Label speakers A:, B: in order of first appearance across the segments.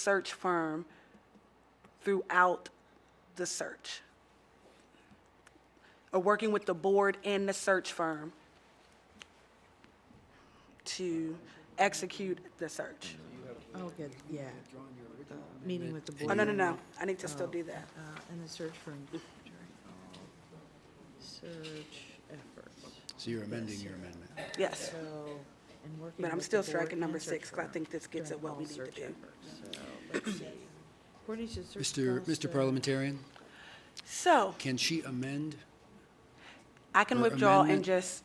A: search firm throughout the search. Or working with the board and the search firm to execute the search.
B: Oh, good, yeah. uh, Meeting with the board.
A: Oh, no, no, no, I need to still do that.
B: Uh, And the search firm. Search efforts.
C: So you're amending your amendment.
A: Yes,
B: So, and working
A: but I'm
B: with the
A: still
B: board
A: striking
B: and
A: number
B: search
A: six, because I
B: firm
A: think this gets
B: during
A: at what
B: all
A: we need to
B: search
A: do.
B: efforts. So, let's see. According to search
C: Mr.
B: cost
C: Mr.
B: of-
C: Parliamentarian,
A: So
C: can she amend?
A: I can
C: Or
A: withdraw and
C: amendment?
A: just,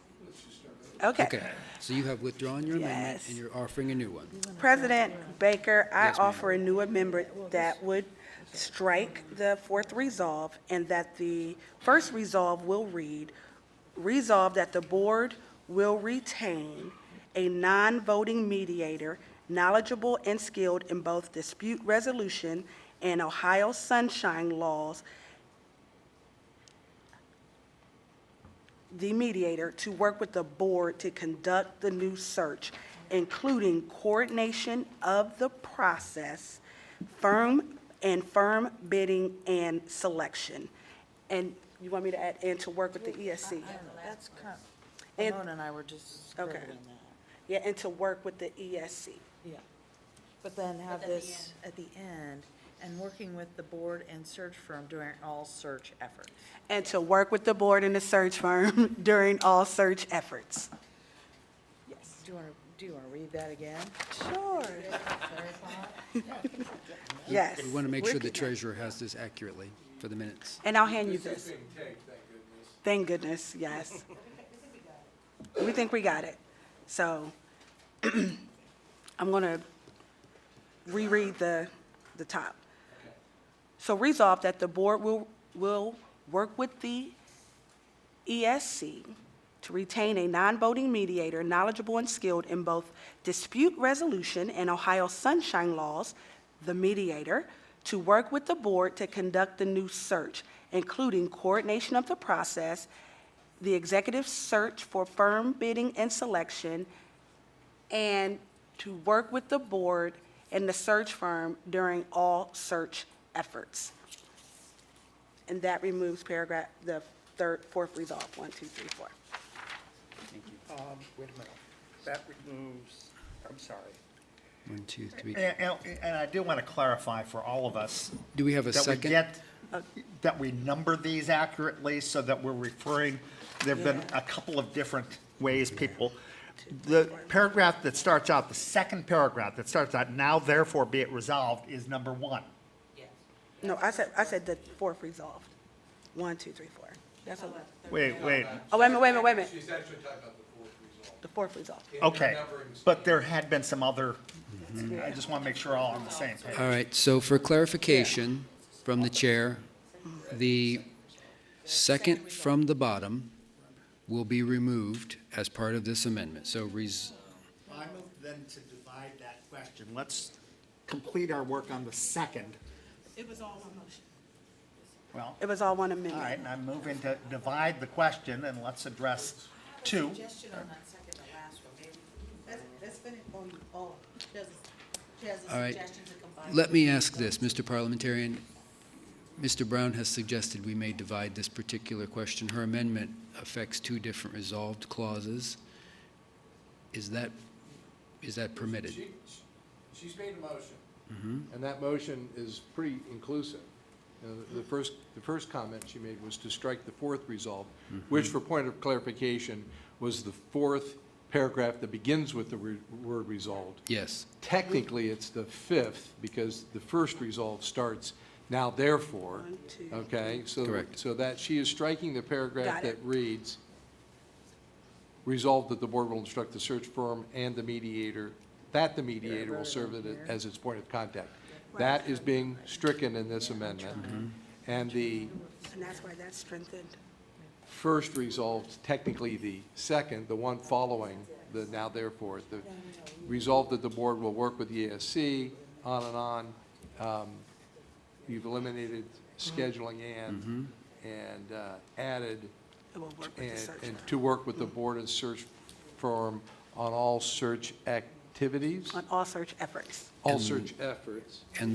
C: Okay, so you have withdrawn your amendment
A: Yes.
C: and you're offering a new one.
A: President Baker, I
C: Yes, ma'am.
A: offer a new amendment that would strike the fourth resolve and that the first resolve will read, resolve that the board will retain a non-voting mediator knowledgeable and skilled in both dispute resolution and Ohio sunshine laws, the mediator to work with the board to conduct the new search, including coordination of the process, firm and firm bidding and selection. And you want me to add, and to work with the E ESC?
B: That's kind,
A: And-
B: Ramona and I were just
A: Okay.
B: scribbling that,
A: Yeah, and to work with the E ESC.
B: yeah. But then have this at the end, and working with the board and search firm during all search efforts.
A: And to work with the board and the search firm during all search efforts.
B: Yes. Do you want to, do you want to read that again?
A: Sure. Yes.
C: We want to make sure the treasurer has this accurately for the minutes.
A: And I'll hand you this. Thank goodness, yes. We think we got it. So I'm going to reread the, the top. So resolve that the board will, will work with the ESC E to retain a non-voting mediator knowledgeable and skilled in both dispute resolution and Ohio sunshine laws, the mediator, to work with the board to conduct the new search, including coordination of the process, the executive search for firm bidding and selection, and to work with the board and the search firm during all search efforts. And that removes paragraph, the third, fourth resolve, one, two, three, four.
D: Um, Wait a minute. That removes, I'm sorry.
C: One, two, three.
D: And, and- and I do want to clarify for all of us.
C: Do we have a
D: that we
C: second?
D: get- That we number these accurately so that we're referring, there've been a couple of different ways people. The paragraph that starts out, the second paragraph that starts out, now therefore be it resolved, is number one.
A: No, I said, I said the fourth resolve, one, two, three, four. That's a lot.
D: Wait, wait,
A: Oh, wait a minute, wait a minute, wait a minute,
E: She's actually talking about the fourth result.
A: the fourth resolve.
D: okay. But there had been some other, I just want to make sure all on the same page.
C: All right, so for clarification from the chair, the second from the bottom will be removed as part of this amendment. So res,
D: I move then to divide that question. Let's complete our work on the second.
A: It was all one motion.
D: Well,
A: It was all one
D: all
A: amendment.
D: right, and I'm moving to divide the question and let's address two.
F: suggestion on that second to last one, maybe. That's, that's been on oh, you all. She has, a- she has
C: All
F: a
C: right.
F: suggestion to combine.
C: Let me ask this, Mr. Parliamentarian. Mr. Brown has suggested we may divide this particular question. Her amendment affects two different resolved clauses. Is that, is that permitted?
E: She, she's made a motion. And that motion is pretty inclusive. You know, The the first, the first comment she made was to strike the fourth resolve, which for point of clarification, was the fourth paragraph that begins with the re- word resolved.
C: Yes.
E: Technically, it's the fifth, because the first resolve starts now therefore,
A: One, two,
E: okay? so-
C: Correct.
E: So that, she is striking the
A: Got it.
E: paragraph that reads, "Resolved that the board will instruct the search firm and the mediator, that the mediator will serve it as its point of contact." That is being stricken in this amendment. And the
A: And that's why that's strengthened.
E: first resolved, technically the second, the one following, the now therefore, the resolved that the board will work with ESC, on and on. Um, You've eliminated scheduling and, and uh, added,
A: It will work with the
E: and,
A: search.
E: and to work with the board and search firm on all search ac- activities,
A: on all search efforts.
E: all search efforts.
C: And